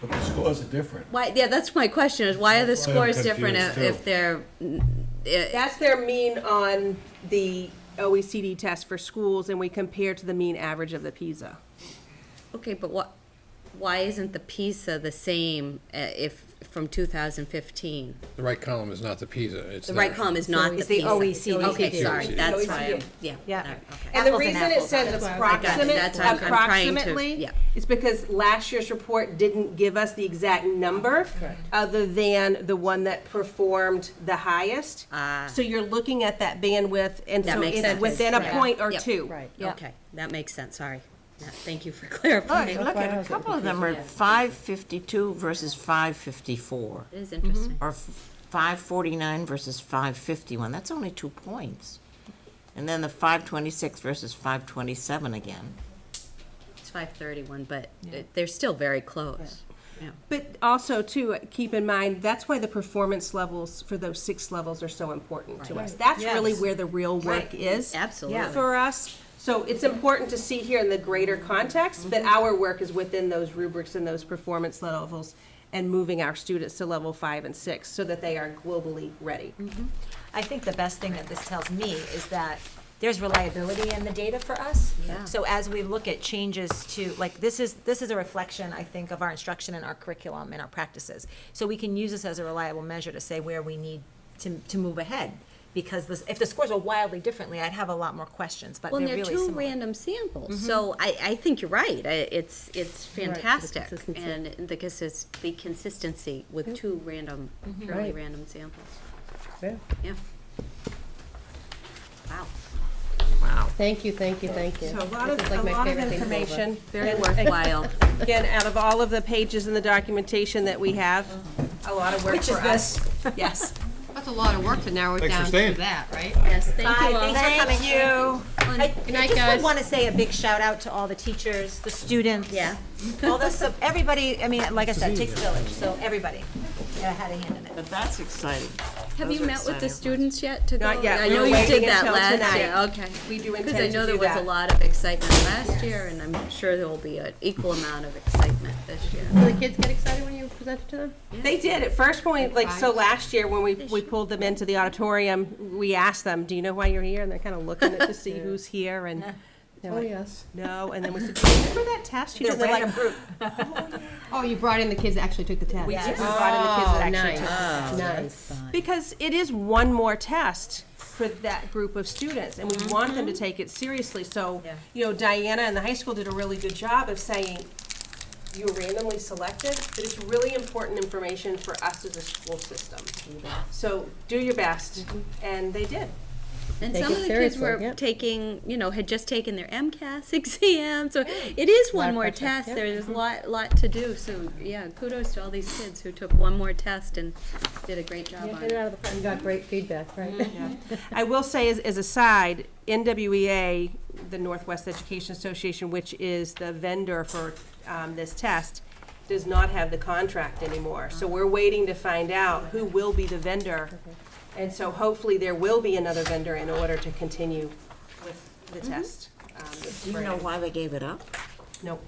But the scores are different. Why, yeah, that's my question, is why are the That's why I'm scores different if confused, if too. they're, eh, That's their mean on the OECD test for schools, and we compare to the mean average of the PISA. okay, but what, why isn't the PISA the same eh, if, from 2015? The right column is not the PISA, it's The right the- column is not the It's PISA. the OECD. Okay, sorry, It's that's OECD. why, I'm- yeah. all Yeah, right, okay. and the Apples and reason it apples, says that's why I got it. approximate, That's why I'm- I'm trying to- approximately, yeah. is because last year's report didn't give us the exact number, other than the one that performed the highest. Ah. So you're looking at that bandwidth, and That so makes it's sense. within a Right. point or Yep. two. Right. Yeah. Okay, that makes sense, sorry. Yeah, Thank you for Look, clarifying. look at a couple of them are five fifty-two versus five fifty-four, It is interesting. or five forty-nine versus five fifty-one. That's only two points. And then the five twenty-six versus five twenty-seven again. It's 5:31, but it- they're still very close. Yeah. But also too, uh, keep in mind, that's why the performance levels for those six levels are so important to us. That's really where the real work is. Absolutely. For us, so it's important to see here in the greater context, but our work is within those rubrics and those performance levels and moving our students to level five and six so that they are globally ready. I think the best thing that this tells me is that there's reliability in the data for us. Yeah. So as we look at changes to, like, this is, this is a reflection, I think, of our instruction and our curriculum and our practices. So we can use this as a reliable measure to say where we need to, to move ahead. Because this, if the scores were wildly differently, I'd have a lot more questions, but Well, they're and they're Mm-hmm. really two similar. random samples, so I, I think you're right. I- It's, it's fantastic. And the consis, the consistency with two random, purely random samples. Yeah. Wow. Thank you, thank you, thank you. So a lot of, This is a like my lot of favorite thing in the world. information. Very worthwhile. Again, out of all of the pages in the documentation that we have, a lot of work Which is for us. Yes. That's a lot of work to narrow it Thanks for down to staying. that, right? Yes, thank Bye, you all. thanks for coming. you. I Good I night, just would guys. want to say a big shout out to all the teachers, the students. Yeah. All the, sub- everybody, I mean, like I said, it takes a village, so everybody yeah, had a hand in it. But that's exciting. Have Those you are met with the exciting. students yet to go? Not yet. I We know were you waiting did that until last tonight. year, okay. We do Because I intend to know there do was a that. lot of excitement last year, and I'm sure there will be an equal amount of excitement this year. Uh, Do the kids get excited when you present it to them? They did at first point, like, so last year when we, we pulled them into the auditorium, we asked them, do you know why you're here? And they're kind of looking at to see who's here and they're Oh, like, yes. no. And then we said, "Do you remember that test you They're did? They're like, random group. Oh, you brought in the kids that actually took the test. Yeah. we brought in the kids that actually took. Oh, Nice, nice. Oh, Because it is one more test for that group of students and we want them to take it seriously. So, Mm-hmm. Yeah. you know, Diana and the high school did a really good job of saying, you were randomly selected, but it's really important information for us as a school system. So do your best, Mm-hmm. and they did. And Take some it of the kids seriously, were yep. taking, you know, had just taken their MCAS exam, so it is Lot one of more pressure, uh-huh. test, yep. there's a lot, lot to do, so, yeah, kudos to all these kids who took one more test and did a great job on Get it it. out of the, you got great feedback, right? Mm, I will say as, as a side, NWEA, the Northwest Education Association, which is the vendor for, um, this test, does not have the contract anymore. So we're waiting to find out who will be the vendor. And so hopefully there will be another vendor in order to continue with the test. um, this Do you know spring. why they gave it up? Nope.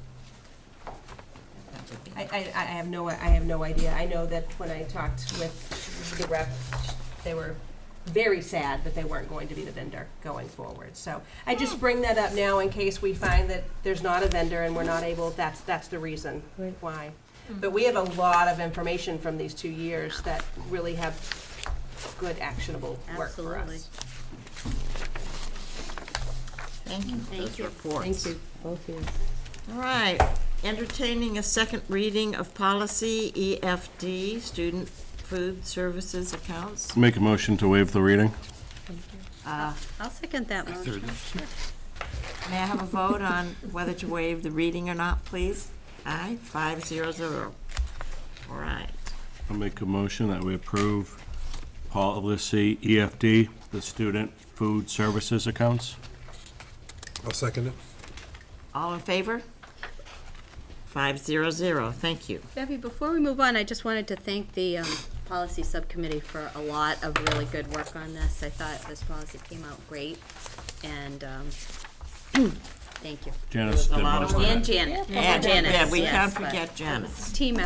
I, I, I have no, I have no idea. I know that when I talked with the rep, they were very sad that they weren't going to be the vendor going forward. So I just bring that up now in case we find that there's not a vendor and we're not able, that's, that's the reason Right. why. But we have a lot of information from these two years that really have good actionable work for Absolutely. us. Thank you for those reports. Thank you, both of you. All right, entertaining a second reading of policy EFD, student food services accounts. Make a motion to waive the reading? I'll second that motion. May I have a vote on whether to waive the reading or not, please? Aye, five zero zero. All right. I'll make a motion that we approve policy EFD, the student food services accounts. I'll second it. All in favor? Five zero zero, thank you. Debbie, before we move on, I just wanted to thank the um, policy subcommittee for a lot of really good work on this. I thought this policy came out great, and um, thank you. Janice did a lot most of of it. And Janet, Yeah, Janice, Yeah, we yes, can't but forget Janice. Team